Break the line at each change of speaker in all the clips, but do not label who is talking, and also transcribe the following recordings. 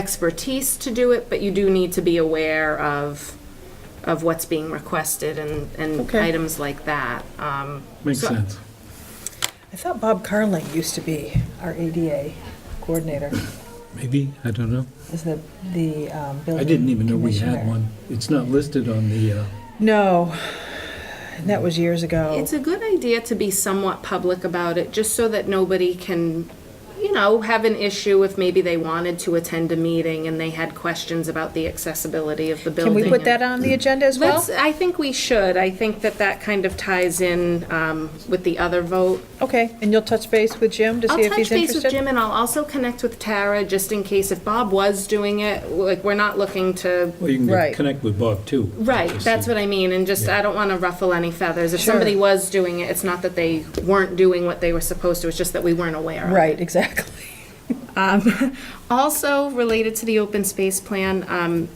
expertise to do it, but you do need to be aware of, of what's being requested and, and
Okay.
items like that. Um,
Makes
so-
sense.
I thought Bob Carling used to be our ADA coordinator,
Maybe, I don't know.
is the, the um, building
I didn't even know we had
commissioner.
one. It's not listed on the, uh,
No, and that was years ago.
It's a good idea to be somewhat public about it, just so that nobody can, you know, have an issue if maybe they wanted to attend a meeting and they had questions about the accessibility of the
Can
building.
we put that on the agenda as well?
Let's, I think we should. I think that that kind of ties in um, with the other vote.
Okay, and you'll touch base with Jim to see if
I'll
he's
touch base with
interested?
Jim, and I'll also connect with Tara, just in case if Bob was doing it, like, we're not looking to,
well, you can
Right.
get- connect with Bob too.
right,
Just
that's
see.
what I mean, and just, I don't want to ruffle any feathers. If
Sure.
somebody was doing it, it's not that they weren't doing what they were supposed to, it's just that we weren't aware of it.
Right, exactly.
Um, Also, related to the open space plan, um,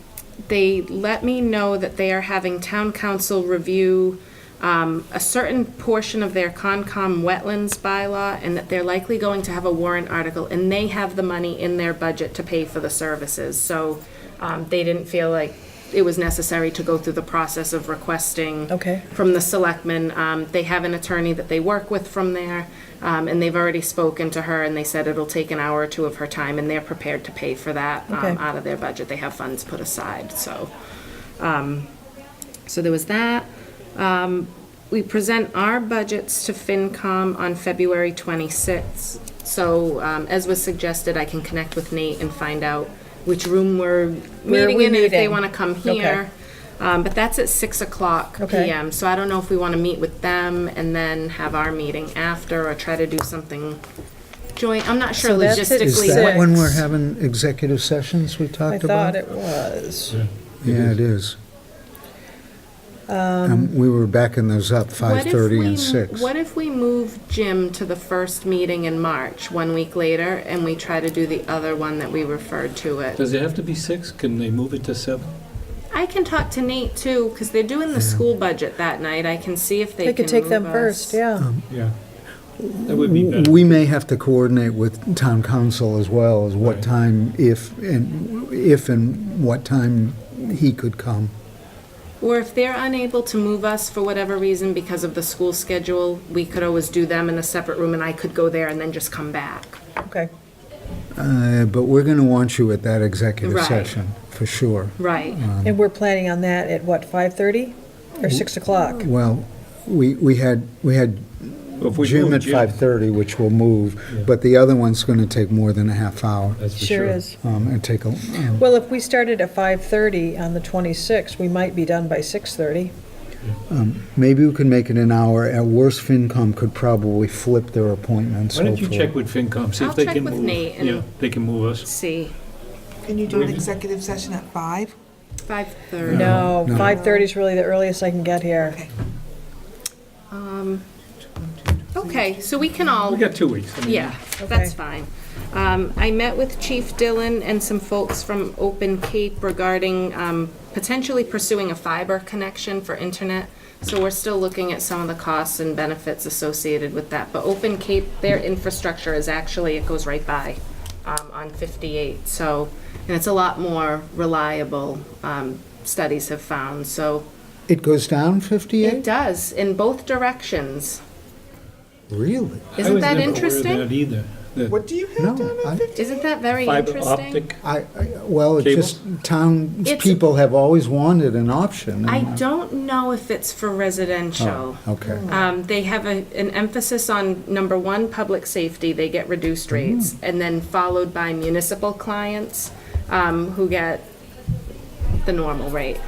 they let me know that they are having town council review um, a certain portion of their Concom wetlands bylaw, and that they're likely going to have a warrant article, and they have the money in their budget to pay for the services, so um, they didn't feel like it was necessary to go through the process of requesting
Okay.
from the selectmen. Um, They have an attorney that they work with from there, um, and they've already spoken to her, and they said it'll take an hour or two of her time, and they're prepared to pay for that um,
Okay.
out of their budget. They have funds put aside, so. um, So there was that. Um, We present our budgets to FinCom on February 26th. So um, as was suggested, I can connect with Nate and find out which room we're
Where are
meeting
we
in, and if they
meeting?
want to come
Okay.
here. Um, but that's at six o'clock
Okay.
PM, so I don't know if we want to meet with them and then have our meeting after or try to do something joint. I'm not sure
So that's at
logistically.
Is
Six.
that
what-
when we're having executive sessions we
I
talked
thought
about?
it was.
Yeah, it is. Um, We were backing those up,
what if
5:30
we-
and 6.
What if we move Jim to the first meeting in March, one week later, and we try to do the other one that we referred to it?
Does it have to be six? Can they move it to seven?
I can talk to Nate too, because they're doing the school budget that night. I can see if they
They
can
could take them
move
first,
us.
yeah.
Yeah. That would be better.
We may have to coordinate with town council as well, as what
Right.
time, if, and if and what time he could come.
Or if they're unable to move us for whatever reason because of the school schedule, we could always do them in a separate room and I could go there and then just come back.
Okay,
Uh, But we're going to want you at that executive
Right.
session, for sure.
Right.
and we're planning on that at what, 5:30 or 6 o'clock?
Well, we we had, we had
If we
Jim
move
at 5:30, which will move, but the other one's going to take more than a half hour
That's for
Sure is.
um, and take a, um,
Well, if we started at 5:30 on the 26th, we might be done by 6:30.
Maybe we could make it an hour. At worst, FinCom could probably flip their appointments.
Why don't you
hopefully.
check with FinCom, see
I'll
if they
check
can move.
with Nate and-
Yeah, they can move us.
See,
Can you do an executive session at five?
5:30.
No,
no.
5:30 is really the earliest I can get here.
Okay.
Um, Okay, so we can all
We got two weeks. I mean,
Yeah, that's fine. Um, I met with Chief Dillon and some folks from Open Cape regarding um, potentially pursuing a fiber connection for internet. So we're still looking at some of the costs and benefits associated with that. But Open Cape, their infrastructure is actually, it goes right by um, on 58, so, and it's a lot more reliable, um, studies have found, so.
It goes down
It
58?
does, in both directions.
Really?
Isn't that
I was
interesting?
never aware of that either. that
What do you have down
No.
at
I-
Isn't that very
Fiber
interesting?
optic,
I, I- well, it
Cable?
just, town
It's-
people have always wanted an option.
I
and-
don't know if it's for residential.
Mm. Oh, Okay.
Um, they have a, an emphasis on number one, public safety, they get reduced rates, and then followed by municipal clients, um, who get the normal rate.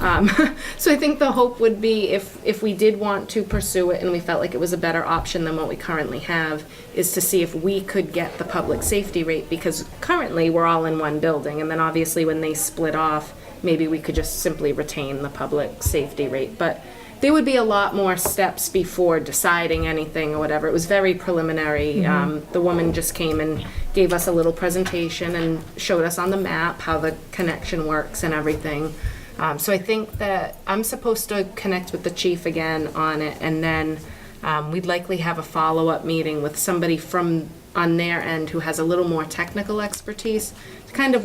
Um, so I think the hope would be if, if we did want to pursue it and we felt like it was a better option than what we currently have, is to see if we could get the public safety rate, because currently we're all in one building, and then obviously when they split off, maybe we could just simply retain the public safety rate, but there would be a lot more steps before deciding anything or whatever. It was very preliminary. Um, the woman just came and gave us a little presentation and showed us on the map how the connection works and everything. Um, so I think that I'm supposed to connect with the chief again on it, and then um, we'd likely have a follow up meeting with somebody from on their end who has a little more technical expertise to kind of